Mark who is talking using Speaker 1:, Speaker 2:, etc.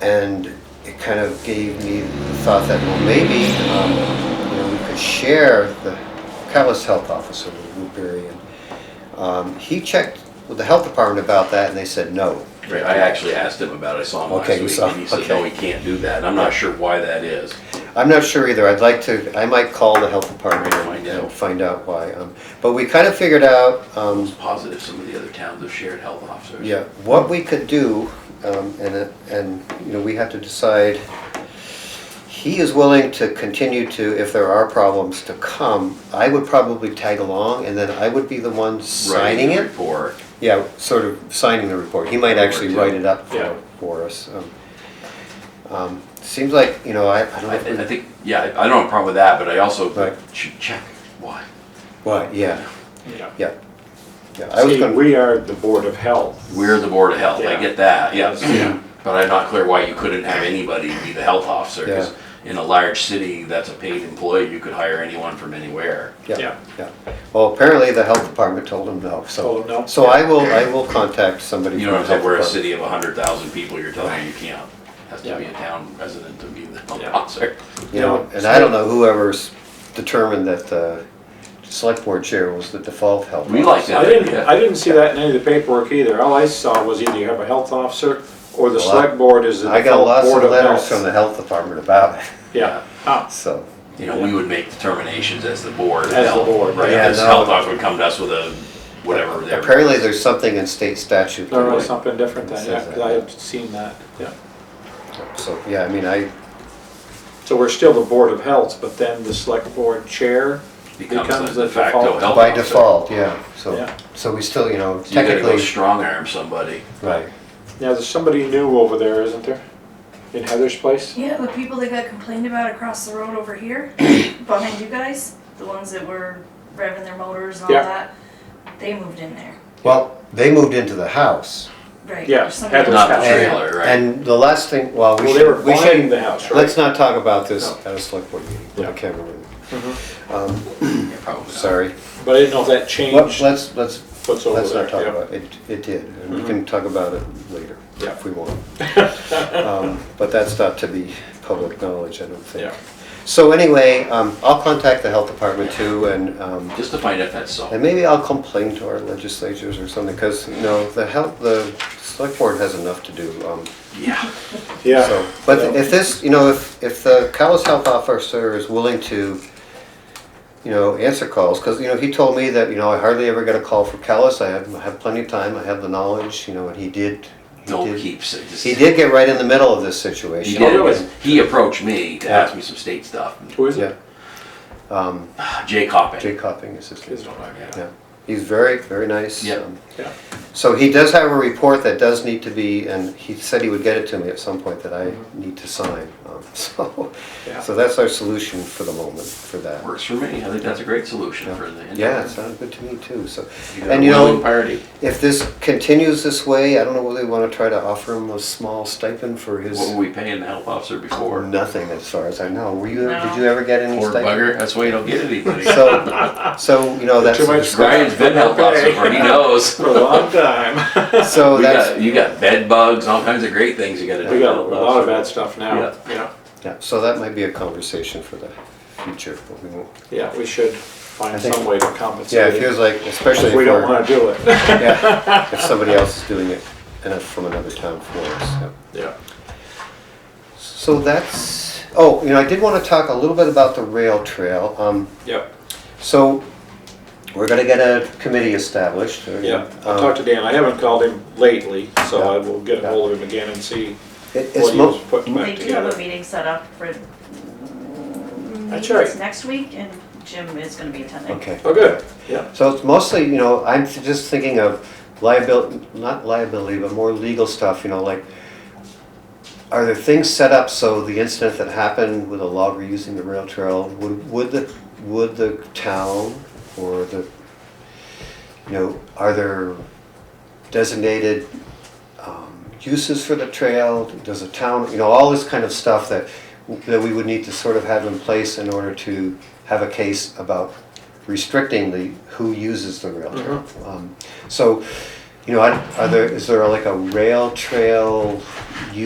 Speaker 1: and it kind of gave me the thought that, well, maybe, um, you know, we could share the Catalyst Health Officer with Woodbury. and, Um, he checked with the health department about that and they said no.
Speaker 2: Right, I actually asked him about it, I saw him
Speaker 1: Okay, you
Speaker 2: last week,
Speaker 1: saw-
Speaker 2: and he said, no,
Speaker 1: okay.
Speaker 2: he can't do that, and I'm not sure why that is.
Speaker 1: I'm not sure either. I'd like to, I might call the health department and
Speaker 2: Find
Speaker 1: and
Speaker 2: out.
Speaker 1: find out why. Um, But we kind of figured out, um,
Speaker 2: Positive, some of the other towns have shared health officers.
Speaker 1: Yeah, what we could do, um, and, it- and, you know, we have to decide, he is willing to continue to, if there are problems, to come. I would probably tag along, and then I would be the one
Speaker 2: Writing
Speaker 1: signing
Speaker 2: the
Speaker 1: it.
Speaker 2: report,
Speaker 1: Yeah, sort of signing the report. He might actually
Speaker 2: Report,
Speaker 1: write
Speaker 2: yeah.
Speaker 1: it up
Speaker 2: Yeah.
Speaker 1: for, for us. um. Um, Seems like, you know, I, I don't know
Speaker 2: I,
Speaker 1: if
Speaker 2: I
Speaker 1: we,
Speaker 2: think, yeah, I I don't have a problem with that, but I also
Speaker 1: Right.
Speaker 2: should check why.
Speaker 1: what, yeah,
Speaker 3: Yeah.
Speaker 1: yeah. Yeah, I was
Speaker 3: See,
Speaker 1: gonna,
Speaker 3: we are the Board of Health.
Speaker 2: We're the Board of Health, I
Speaker 3: Yeah.
Speaker 2: get that,
Speaker 3: Yeah.
Speaker 2: yes. But I'm not clear why you couldn't have anybody be the health officer, 'cause in a large city that's a paid employee, you could hire anyone from anywhere.
Speaker 1: yeah, yeah. Well, apparently the health department told him no, so.
Speaker 3: Told him no?
Speaker 1: So I will, I will contact somebody.
Speaker 2: You know what I'm
Speaker 1: from
Speaker 2: saying,
Speaker 1: the
Speaker 2: we're a
Speaker 1: health department.
Speaker 2: city of hundred thousand people, you're telling me you can't, has to be a town resident to be the health
Speaker 3: Yeah.
Speaker 2: officer.
Speaker 1: You know, and I don't know whoever's determined that the select board chair was the default health.
Speaker 2: We like that.
Speaker 3: I didn't,
Speaker 2: idea.
Speaker 3: I didn't see that in any of the paperwork either. All I saw was either you have a health officer or the
Speaker 1: Well, I-
Speaker 3: select board is the
Speaker 1: I got
Speaker 3: default
Speaker 1: lots
Speaker 3: board
Speaker 1: of
Speaker 3: of
Speaker 1: letters from
Speaker 3: health.
Speaker 1: the health department about it,
Speaker 3: Yeah, ah,
Speaker 1: so.
Speaker 2: You know, we would make determinations as the board. of
Speaker 3: As the
Speaker 2: health,
Speaker 3: board,
Speaker 2: Right,
Speaker 1: yeah,
Speaker 2: as
Speaker 1: no.
Speaker 2: health officer would come to us with a, whatever. their-
Speaker 1: Apparently, there's something in state statute.
Speaker 3: there was
Speaker 1: that-
Speaker 3: something different
Speaker 1: It
Speaker 3: then, yeah,
Speaker 1: says
Speaker 3: 'cause
Speaker 1: that,
Speaker 3: I
Speaker 1: yeah.
Speaker 3: had seen that, yeah.
Speaker 1: So, yeah, I mean, I,
Speaker 3: So we're still the Board of Health, but then the select board chair
Speaker 2: Becomes
Speaker 3: becomes
Speaker 2: the
Speaker 3: the
Speaker 2: de facto
Speaker 3: default.
Speaker 2: health
Speaker 1: by
Speaker 2: officer.
Speaker 1: default, yeah, so,
Speaker 3: Yeah.
Speaker 1: so we still, you know,
Speaker 2: You gotta go
Speaker 1: technically.
Speaker 2: strong arm somebody.
Speaker 1: Right.
Speaker 3: Now, there's somebody new over there, isn't there? In Heather's place?
Speaker 4: Yeah, the people that got complained about across the road over here, behind you guys, the ones that were revving their motors and all
Speaker 3: Yeah.
Speaker 4: that, they moved in there,
Speaker 1: Well, they moved into the house.
Speaker 4: right?
Speaker 3: Yeah,
Speaker 4: There's somebody
Speaker 3: Heather's
Speaker 4: else-
Speaker 2: Not the
Speaker 3: house.
Speaker 2: trailer, right?
Speaker 1: And the last thing, well, we
Speaker 3: Well, they were
Speaker 1: should, we
Speaker 3: buying
Speaker 1: should,
Speaker 3: the house,
Speaker 1: let's
Speaker 3: right?
Speaker 1: not talk about this
Speaker 2: No.
Speaker 1: at a select board meeting,
Speaker 3: Yeah.
Speaker 1: I can't remember.
Speaker 3: Mhm.
Speaker 1: Um,
Speaker 2: Yeah, probably not.
Speaker 1: sorry.
Speaker 3: But I didn't know if that
Speaker 1: Let-
Speaker 3: changed
Speaker 1: Let's, let's
Speaker 3: what's over
Speaker 1: Let's
Speaker 3: there.
Speaker 1: not talk
Speaker 3: yeah. Mm-hmm.
Speaker 1: about it. It- It did, and we can talk about it later
Speaker 3: Yeah.
Speaker 1: if we want. Um, But that's not to be public knowledge, I don't think.
Speaker 3: Yeah.
Speaker 1: So anyway, um, I'll contact the health department too, and, um,
Speaker 2: Just to find out if that's so.
Speaker 1: and maybe I'll complain to our legislatures or something, because, you know, the health, the select board has enough to do. um,
Speaker 2: Yeah.
Speaker 3: Yeah.
Speaker 1: so- But
Speaker 3: Yeah.
Speaker 1: if this, you know, if, if the Callis Health Officer is willing to, you know, answer calls, because, you know, he told me that, you know, I hardly ever get a call from Callis, I have, I have plenty of time, I have the knowledge, you know, and he did. he
Speaker 2: Don't
Speaker 1: did-
Speaker 2: keep, sa- just.
Speaker 1: He did get right in the middle of this situation.
Speaker 2: He did,
Speaker 3: Oh, really?
Speaker 2: 'cause he approached me to
Speaker 1: Yeah.
Speaker 2: ask me some state stuff.
Speaker 3: Who is
Speaker 1: Yeah.
Speaker 3: it?
Speaker 1: Um,
Speaker 2: Jay Coppin.
Speaker 1: Jay Copping is his
Speaker 3: Is
Speaker 1: name.
Speaker 3: it on there?
Speaker 1: Yeah. He's very, very nice.
Speaker 2: Yep.
Speaker 1: um,
Speaker 3: Yeah.
Speaker 1: So he does have a report that does need to be, and he said he would get it to me at some point that I
Speaker 3: Mm-hmm.
Speaker 1: need to sign. um, So,
Speaker 3: Yeah.
Speaker 1: so that's our solution for the moment, for that.
Speaker 2: Works for me. I think that's a great solution
Speaker 1: Yeah.
Speaker 2: for the.
Speaker 1: Yeah, it sounded good to me too, so,
Speaker 2: You got a
Speaker 1: and you
Speaker 2: willing
Speaker 1: know,
Speaker 2: party.
Speaker 1: if this continues this way, I don't know whether we wanna try to offer him a small stipend for his,
Speaker 2: What were we paying the health officer before?
Speaker 1: or nothing as far as I know, were you,
Speaker 4: No.
Speaker 1: did you ever get any
Speaker 2: Poor
Speaker 1: stipend?
Speaker 2: bugger, that's why you don't get anybody.
Speaker 1: So, so, you know, that's,
Speaker 3: Too much
Speaker 2: Brian's been health officer for, he knows.
Speaker 3: For a long time.
Speaker 1: so
Speaker 2: We
Speaker 1: Oh, that's,
Speaker 2: got, you got bed bugs, all kinds of great things you gotta do.
Speaker 3: We got a lot of bad stuff now.
Speaker 2: Yeah.
Speaker 3: Yeah,
Speaker 1: yeah, so that might be a conversation for the future, but we won't.
Speaker 3: yeah, we should
Speaker 1: I
Speaker 3: find
Speaker 1: think-
Speaker 3: some way to
Speaker 1: Yeah,
Speaker 3: compensate.
Speaker 1: it feels like, especially
Speaker 3: If
Speaker 1: if
Speaker 3: we don't
Speaker 1: we're,
Speaker 3: wanna do it.
Speaker 1: yeah, if somebody else is doing it, and it's from another town for us, yeah.
Speaker 3: Yeah.
Speaker 1: So that's, oh, you know, I did want to talk a little bit about the rail trail. Um,
Speaker 3: Yep,
Speaker 1: So we're going to get a committee established. or,
Speaker 3: yeah. I
Speaker 1: um,
Speaker 3: talked to Dan. I haven't called him lately, so
Speaker 1: Yeah.
Speaker 3: I will get
Speaker 1: Yeah.
Speaker 3: hold of him again and see
Speaker 1: it- It's
Speaker 3: what he was
Speaker 1: mo-
Speaker 3: putting
Speaker 4: They
Speaker 3: back
Speaker 4: do have a
Speaker 3: together.
Speaker 4: meeting set up for.
Speaker 3: That's
Speaker 4: meetings
Speaker 3: right.
Speaker 4: Next week, and Jim is gonna be attending.
Speaker 1: okay.
Speaker 3: Oh, good, yeah.
Speaker 1: So it's mostly, you know, I'm just thinking of liability, not liability, but more legal stuff, you know, like, are there things set up so the incident that happened with a logger using the rail trail, would, would the, would the town or the, you know, are there designated um, uses for the trail? Does a town, you know, all this kind of stuff that, that we would need to sort of have in place in order to have a case about restricting the, who uses the rail trail. Um, So, you know, I- are there, is there like a rail trail